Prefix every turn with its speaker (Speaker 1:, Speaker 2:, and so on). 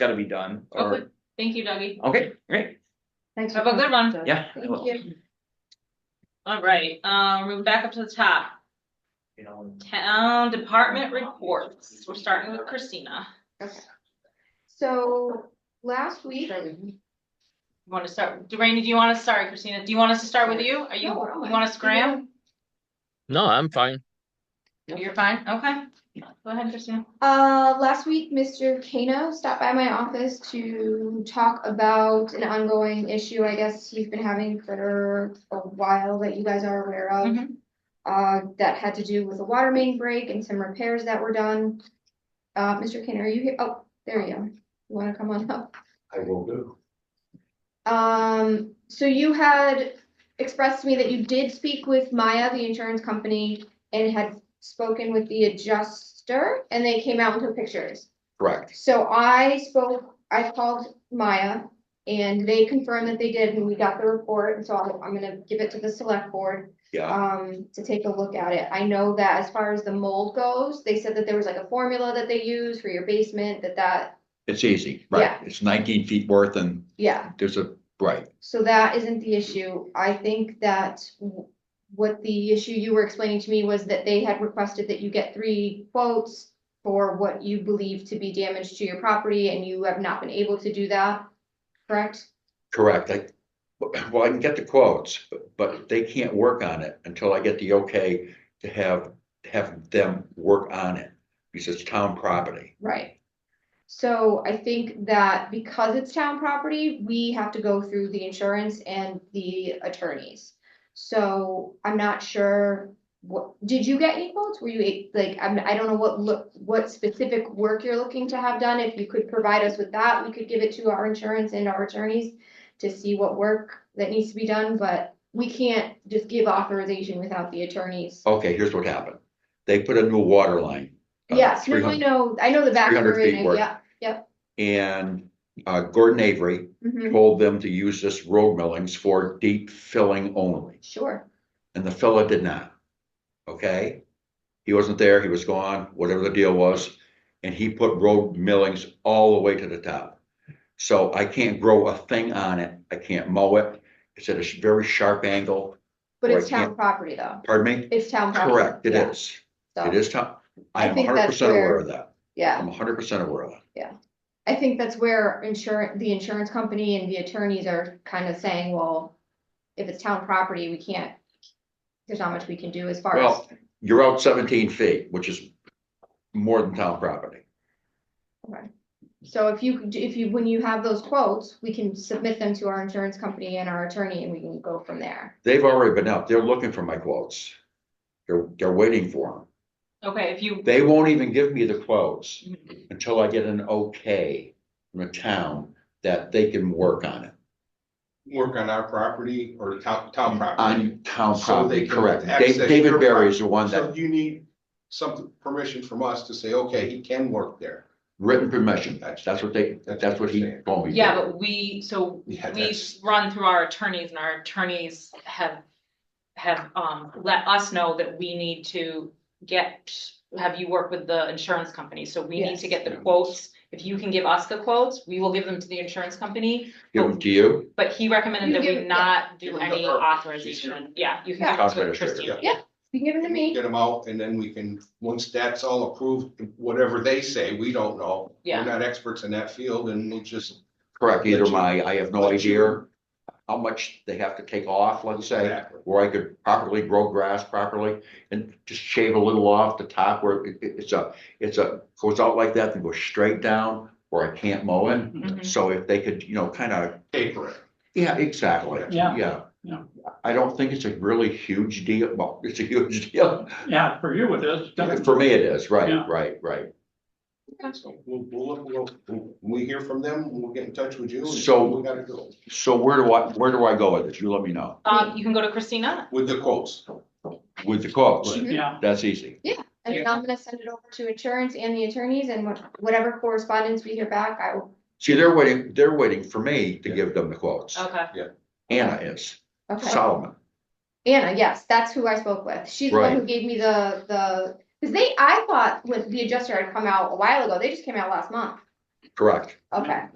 Speaker 1: gotta be done,
Speaker 2: Okay,
Speaker 1: or,
Speaker 2: thank you, Dougie.
Speaker 1: okay, great,
Speaker 3: Thanks.
Speaker 2: Have a good one.
Speaker 1: yeah. I will.
Speaker 3: Thank you.
Speaker 2: All right, um, move back up to the top.
Speaker 1: You know,
Speaker 2: Town department reports. We're starting with Christina.
Speaker 3: So last week,
Speaker 2: You want to start, Rainey, do you want to, sorry, Christina, do you want us to start with you? Are you, you
Speaker 3: No, I don't
Speaker 2: want to scram?
Speaker 4: No, I'm fine.
Speaker 2: You're fine, okay. Go ahead, Christina.
Speaker 3: uh, last week, Mr. Kano stopped by my office to talk about an ongoing issue, I guess he's been having for a while that you guys are aware of.
Speaker 2: Mhm.
Speaker 3: Uh, that had to do with a water main break and some repairs that were done. Uh, Mr. Kano, are you here? Oh, there you are. You wanna come on up?
Speaker 5: I will do.
Speaker 3: Um, so you had expressed to me that you did speak with Maya, the insurance company, and had spoken with the adjuster, and they came out and took pictures.
Speaker 5: Correct.
Speaker 3: So I spoke, I called Maya, and they confirmed that they did, and we got the report, and so I'm, I'm gonna give it to the select board,
Speaker 5: Yeah,
Speaker 3: um, to take a look at it. I know that as far as the mold goes, they said that there was like a formula that they use for your basement, that that,
Speaker 5: it's easy, right?
Speaker 3: Yeah.
Speaker 5: It's nineteen feet worth and
Speaker 3: yeah.
Speaker 5: there's a, right,
Speaker 3: So that isn't the issue. I think that w- what the issue you were explaining to me was that they had requested that you get three quotes for what you believe to be damage to your property and you have not been able to do that, correct?
Speaker 5: correct. I, well, I can get the quotes, but- but they can't work on it until I get the okay to have, have them work on it. Because it's town property.
Speaker 3: Right. So I think that because it's town property, we have to go through the insurance and the attorneys. So I'm not sure, what, did you get any quotes? Were you, a- like, I'm, I don't know what look, what specific work you're looking to have done. If you could provide us with that, we could give it to our insurance and our attorneys to see what work that needs to be done, but we can't just give authorization without the attorneys.
Speaker 5: Okay, here's what happened. They put a new water line. uh,
Speaker 3: Yes, no, I
Speaker 5: 300
Speaker 3: know, I know the back.
Speaker 5: 300
Speaker 3: area,
Speaker 5: feet worth.
Speaker 3: Yeah,
Speaker 5: And uh, Gordon Avery
Speaker 3: mhm,
Speaker 5: told them to use this road millings for deep filling only.
Speaker 3: sure,
Speaker 5: And the fella did not. Okay? He wasn't there, he was gone, whatever the deal was. And he put road millings all the way to the top. So I can't grow a thing on it. I can't mow it. It's at a sh- very sharp angle.
Speaker 3: but
Speaker 5: Or
Speaker 3: it's
Speaker 5: I can't-
Speaker 3: town property though.
Speaker 5: Pardon me?
Speaker 3: It's town property.
Speaker 5: Correct, it
Speaker 3: Uh-huh. yeah,
Speaker 5: is.
Speaker 3: so,
Speaker 5: It is top. I
Speaker 3: I
Speaker 5: am
Speaker 3: think that's
Speaker 5: hundred percent aware
Speaker 3: where-
Speaker 5: of that.
Speaker 3: Yeah,
Speaker 5: I'm hundred percent aware of that.
Speaker 3: I think that's where insurance, the insurance company and the attorneys are kind of saying, well, if it's town property, we can't, there's not much we can do as far as,
Speaker 5: Well, you're out seventeen feet, which is more than town property.
Speaker 3: so if you, could- if you, when you have those quotes, we can submit them to our insurance company and our attorney and we can go from there.
Speaker 5: They've already been out. They're looking for my quotes. They're, they're waiting for them.
Speaker 2: Okay, if you,
Speaker 5: They won't even give me the quotes until I get an okay from a town that they can work on it.
Speaker 6: work on our property or the town,
Speaker 5: Mm,
Speaker 6: town property.
Speaker 5: On town
Speaker 6: So they
Speaker 5: property,
Speaker 6: can
Speaker 5: correct.
Speaker 6: access
Speaker 5: Dave- David
Speaker 6: your
Speaker 5: Barry is the one
Speaker 6: So
Speaker 5: that,
Speaker 6: you need some permission from us to say, okay, he can work there.
Speaker 5: written permission,
Speaker 6: That's-
Speaker 5: that's what they,
Speaker 6: that's
Speaker 5: that's what he
Speaker 6: what I'm
Speaker 5: told me.
Speaker 2: yeah, but we, so
Speaker 6: Yeah,
Speaker 2: we
Speaker 6: that's,
Speaker 2: run through our attorneys and our attorneys have, have, um, let us know that we need to get, have you work with the insurance company, so we need to
Speaker 3: Yes.
Speaker 2: get the quotes. If you can give us the quotes, we will give them to the insurance company,
Speaker 5: Give them to you,
Speaker 2: But he recommended
Speaker 3: You
Speaker 2: that we
Speaker 3: give-
Speaker 2: not
Speaker 6: Give
Speaker 2: do
Speaker 6: him the
Speaker 2: any
Speaker 6: herb.
Speaker 2: authorization, yeah, you can
Speaker 3: Yeah.
Speaker 2: give it to
Speaker 5: Administrator.
Speaker 2: Christina.
Speaker 6: Yeah.
Speaker 3: You can give them to me.
Speaker 6: get him out and then we can, once that's all approved, whatever they say, we don't know.
Speaker 2: Yeah.
Speaker 6: We're not experts in that field and we just.
Speaker 5: correct, either
Speaker 6: Let
Speaker 5: my,
Speaker 6: you-
Speaker 5: I have no
Speaker 6: let you-
Speaker 5: idea how much they have to take off, let's say,
Speaker 6: Exactly.
Speaker 5: where I could properly grow grass properly and just shave a little off the top where it, it- it's a, it's a, goes out like that and goes straight down where I can't mow it.
Speaker 3: Mm-hmm.
Speaker 2: Mhm.
Speaker 5: So if they could, you know, kind of,
Speaker 6: Paper it.
Speaker 5: yeah, exactly,
Speaker 7: Yeah.
Speaker 5: yeah.
Speaker 7: Yeah.
Speaker 5: I don't think it's a really huge deal, well, it's a huge deal,
Speaker 7: Yeah, for you it is.
Speaker 5: for me it is, right,
Speaker 7: Yeah.
Speaker 5: right, right.
Speaker 6: So We'll, we'll, we'll, we'll- we hear from them, we'll get in touch with you. and
Speaker 5: So-
Speaker 6: We gotta go
Speaker 5: So where do I, where do I go with this, you let me know,
Speaker 2: Um, you can go to Christina,
Speaker 6: with the quotes.
Speaker 5: with the quotes,
Speaker 3: Mhm.
Speaker 7: Yeah,
Speaker 5: that's easy,
Speaker 3: And then I'm gonna send it over to insurance and the attorneys and what- whatever correspondence we hear back, I will,
Speaker 5: see, they're waiting, they're waiting for me to give them the quotes,
Speaker 2: okay,
Speaker 5: Anna is,
Speaker 3: okay.
Speaker 5: Solomon,
Speaker 3: Anna, yes, that's who I spoke with. She's the one who gave me the, the, because they, I thought when the adjuster had come out a while ago, they just came out last month.
Speaker 8: correct?
Speaker 5: Okay.